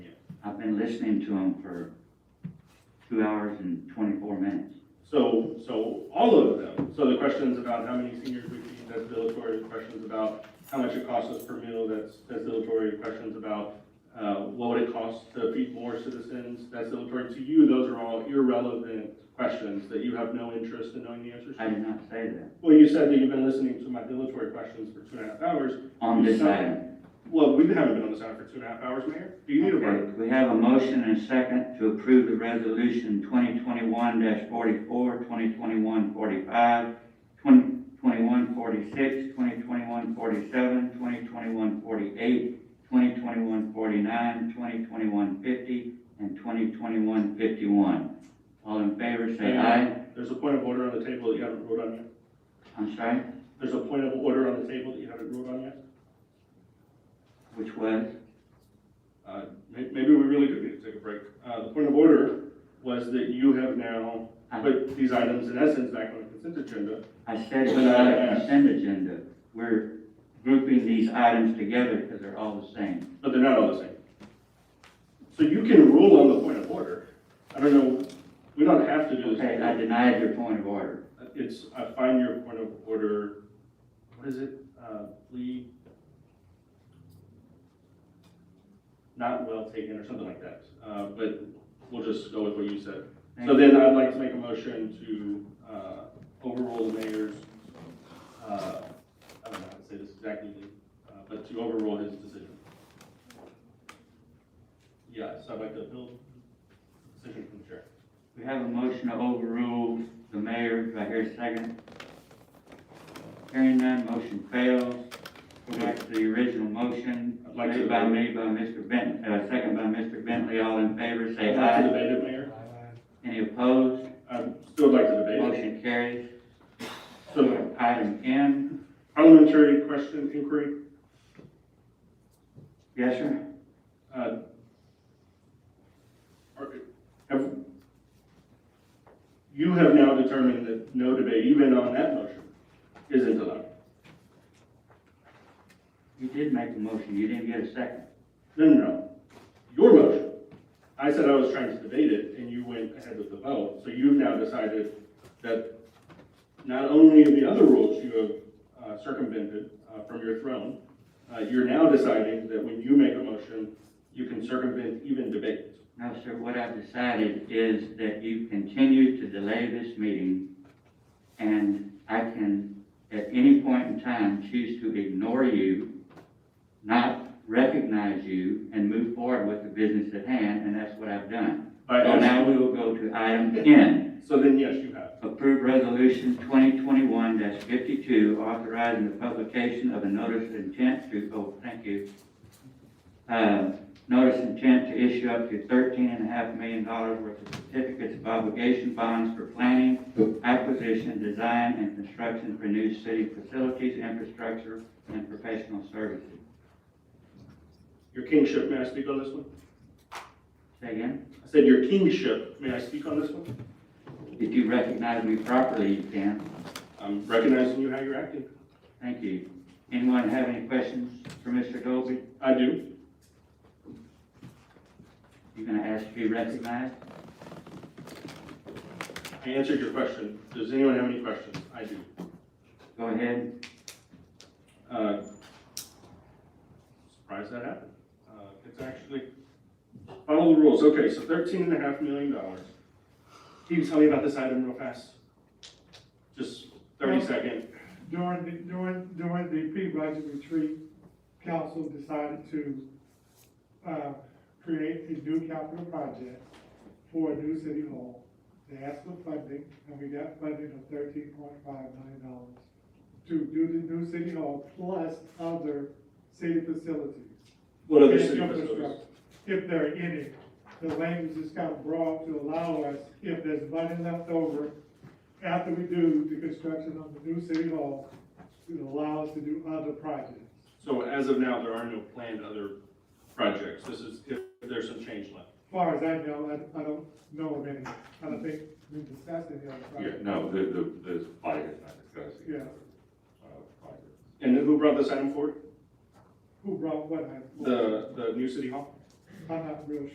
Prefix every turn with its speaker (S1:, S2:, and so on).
S1: been listening to him for two hours and twenty-four minutes.
S2: So, so all of them, so the questions about how many seniors we feed, that's dilatory, The questions about how much it costs us per meal, that's, that's dilatory, The questions about, uh, what would it cost to feed more citizens, that's dilatory. To you, those are all irrelevant questions that you have no interest in knowing the answers
S1: I
S2: to.
S1: did not say that
S2: Well, you said that you've been listening to my dilatory questions for two and a half hours.
S1: on this item.
S2: Well, we haven't been on this item for two and a half hours, Mayor. Do you need a break?
S1: Okay, we have a motion and a second to approve the resolution 2021 44, 2021 45, 2021 46, 2021 47, 2021 48, 2021 49, 2021 50, and 2021 51. All in favor, say aye.
S2: There's a point of order on the table that you haven't ruled on yet.
S1: I'm sorry,
S2: There's a point of order on the table that you haven't ruled on yet.
S1: which was?
S2: Uh, may- Maybe we really do need to take a break. Uh, The point of order was that you have now put these items in essence back on the consent agenda.
S1: I said without a consent agenda. We're grouping these items together because they're all the same.
S2: But they're not all the same. So you can rule on the point of order. I don't know, we don't have to do
S1: Okay, I
S2: this.
S1: denied your point of order.
S2: It's, I find your point of order, what is it, Uh, plea? Not well taken or something like that. Uh, But we'll just go with what you said.
S1: Thank
S2: So
S1: you.
S2: then I'd like to make a motion to uh, overrule the mayor's, uh, I don't know how to say this exactly, uh, but to overrule his decision. Yeah, so I'd like to appeal the decision from the chair.
S1: We have a motion to overrule the mayor. Do I hear a second? Hearing none, motion fails. Go back to the original motion,
S2: I'd like to-
S1: made by me, by Mr. Bentley, uh, second by Mr. Bentley. All in favor, say
S2: I'd like to
S1: aye.
S2: debate it, Mayor.
S1: Any opposed?
S2: I'd still like to debate it.
S1: Motion carries.
S2: So
S1: Item N,
S2: parliamentary question inquiry,
S1: yes, sir?
S2: uh, are- have, you have now determined that no debate, even on that motion, isn't allowed.
S1: You did make a motion. You didn't get a second.
S2: No, no, no. Your motion. I said I was trying to debate it, and you went ahead with the vote. So you've now decided that not only the other rules you have uh, circumvented uh, from your throne, uh, you're now deciding that when you make a motion, you can circumvent even debate.
S1: No, sir, what I've decided is that you continue to delay this meeting, and I can, at any point in time, choose to ignore you, not recognize you, and move forward with the business at hand, and that's what I've done.
S2: By
S1: So
S2: action.
S1: now we will go to item ten,
S2: So then, yes, you have.
S1: approve resolution twenty twenty-one fifty-two, authorizing the publication of a notice of intent to, oh, thank you, uh, notice intent to issue up to thirteen and a half million dollars worth of certificates of obligation bonds for planning, acquisition, design, and construction for new city facilities, infrastructure, and professional services.
S2: Your kingship, may I speak on this one?
S1: Say again,
S2: I said your kingship, may I speak on this one?
S1: if you recognize me properly, you can.
S2: I'm recognizing you how you're acting.
S1: Thank you. Anyone have any questions for Mr. Dolby?
S2: I do.
S1: You gonna ask to be recognized?
S2: I answered your question. Does anyone have any questions? I do.
S1: Go ahead.
S2: Uh, Surprised that happened. Uh, It's actually, follow the rules. Okay, so thirteen and a half million dollars. Can you tell me about this item real fast? Just thirty
S3: Yeah.
S2: second.
S3: During the, during, during the pre-budget retreat, council decided to, uh, create a new capital project for a new city hall. They asked for funding, and we got funding of thirteen point five million dollars to do the new city hall plus other city facilities.
S2: What other
S3: and
S2: city facilities?
S3: infrastructure, If there are any, the language is kind of broad to allow us, if there's money left over after we do the construction of the new city hall, to allow us to do other projects.
S2: So as of now, there are no planned other projects. This is if there's some change left.
S3: As far as I know, I, I don't know of any, I don't think we discussed any other
S4: Yeah,
S3: projects.
S4: no, the, the, this body is not discussing.
S3: Yeah.
S4: uh, project.
S2: And who brought this item forward?
S3: Who brought what, I,
S2: The, the new city hall?
S3: I'm not real sure.